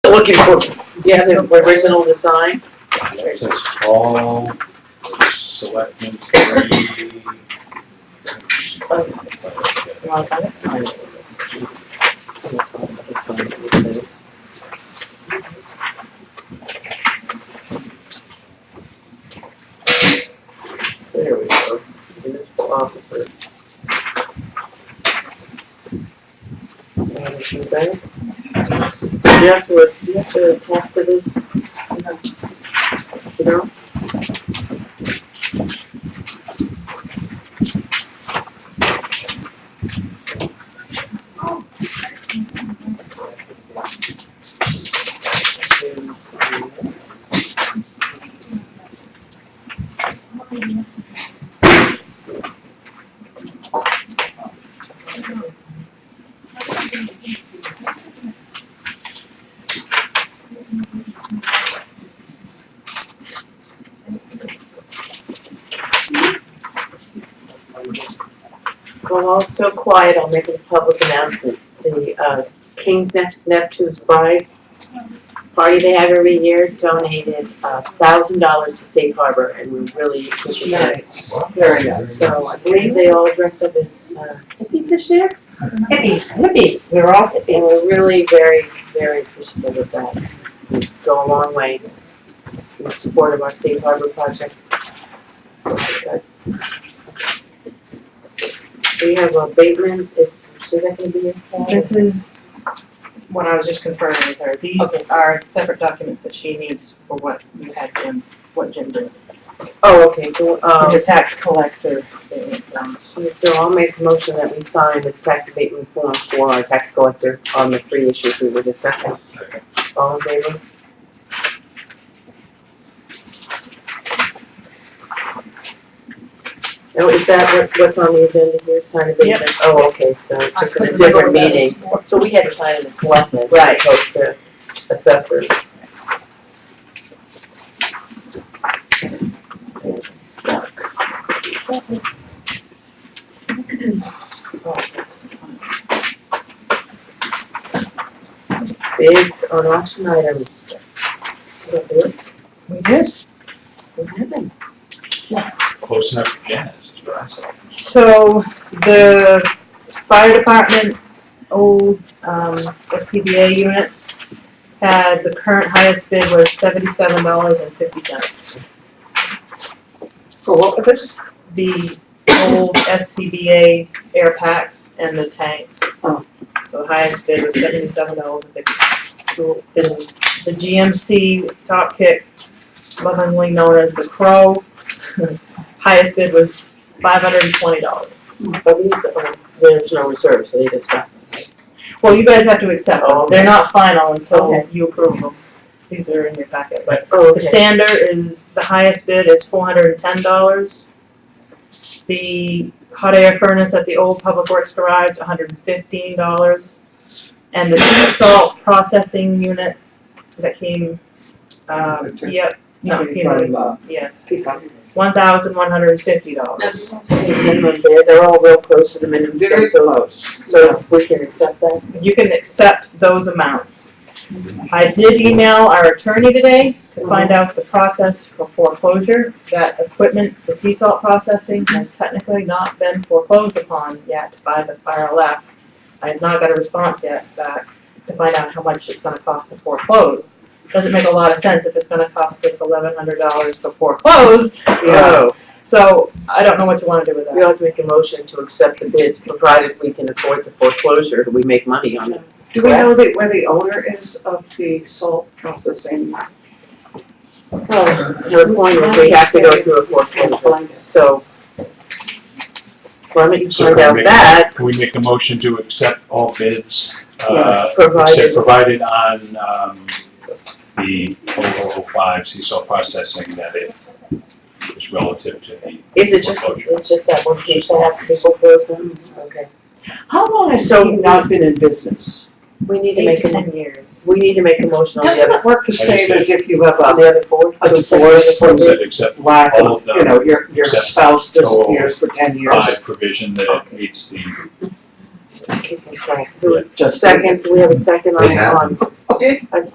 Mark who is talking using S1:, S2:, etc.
S1: we're looking for, you have the original design?
S2: That's all selectmen three.
S1: You wanna find it? There we go, municipal officer. And it's in there. Do you have to, do you have to attest to this? You know? Well, while it's so quiet, I'll make a public announcement. The uh, King's Nep- Neptune's Brides party they have every year donated a thousand dollars to Safe Harbor, and we really appreciate that.
S3: Very nice.
S1: So uh, I believe they all dressed up as uh, hippies this year.
S3: Hippies.
S1: Hippies, we were all hippies. And we're really very, very appreciative of that. We go a long way in support of our Safe Harbor project. So that's good. We have uh, Bateman, is, is that gonna be your call?
S4: This is what I was just confirming with her. These
S1: Okay.
S4: are separate documents that she needs for what you had Jim, what Jim did.
S1: Oh, okay, so, um,
S4: The tax collector thing. um,
S1: so I'll make a motion that we sign this tax abatement form for our tax collector on the three issues we were discussing. All in favor? Now, is that what- what's on the agenda here, sign of
S4: Yep.
S1: agreement? Oh, okay, so it's just in a
S4: couldn't
S1: different
S4: remember what that
S1: meeting. So we had to sign in the selectmen, right, opposed to assessors. It's stuck. Bids on auction items. What bids?
S4: We did.
S1: What happened?
S2: Close enough for Janice, is what I'm saying.
S4: So the fire department, old, um, SCBA units had, the current highest bid was seventy-seven dollars and fifty cents.
S3: For what purpose?
S4: the old SCBA air packs and the tanks.
S3: Oh.
S4: So highest bid was seventy-seven dollars and fifty cents. The GMC Top Kick, lovingly known as the Crow, highest bid was five hundred and twenty dollars.
S1: But these are, there's no reserve, so they just got.
S4: Well, you guys have to accept
S1: Oh,
S4: them,
S1: okay.
S4: they're not final until
S1: Okay.
S4: you approve them. These are in your packet, but
S1: Oh,
S4: The sander is, the highest bid is four hundred and ten dollars. The hot air furnace at the old Public Works Garage, hundred and fifteen dollars. And the sea salt processing unit that came, um, yep, no, came out of, yes, one thousand one hundred and fifty dollars.
S1: Minimum bid, they're all real close to the minimum bid,
S3: Very
S1: so,
S3: close.
S1: so we can accept that.
S4: You can accept those amounts. I did email our attorney today to find out the process for foreclosure. That equipment, the sea salt processing, has technically not been foreclosed upon yet by the RLF. I have not got a response yet back to find out how much it's gonna cost to foreclose. Doesn't make a lot of sense if it's gonna cost us eleven hundred dollars to foreclose, Yeah. so I don't know what you wanna do with
S1: We
S4: that.
S1: ought to make a motion to accept the bids, provided we can afford the foreclosure, we make money on it.
S3: Do we know that where the owner is of the salt processing?
S1: Your point is we have to go through a foreclosure, so. Why don't you
S2: So
S1: find out
S2: we make-
S1: that,
S2: Can we make a motion to accept all bids? uh,
S1: yes, provided,
S2: Except provided on, um, the 0005 CSO processing that it is relative to the.
S1: is it just, it's just that one page that has to be foreclosed on? Okay.
S3: How long has he not been in business?
S1: We need to
S4: Eight
S1: make
S4: to
S1: a,
S4: ten years.
S1: we need to make a motion on the
S3: Doesn't
S1: other,
S3: it work the
S2: I
S3: same
S2: just-
S3: as if you have
S1: on
S3: a
S1: the other board?
S3: a divorce
S1: On
S3: from
S1: the other
S2: Is
S1: board?
S2: it except
S3: lack
S2: All
S3: of,
S2: of them.
S3: you know, your, your
S2: Except-
S3: spouse disappears for ten years?
S2: by provision that it meets the,
S1: Keep in track.
S3: Just
S1: Second, we have a second on,
S2: They have.
S1: on, a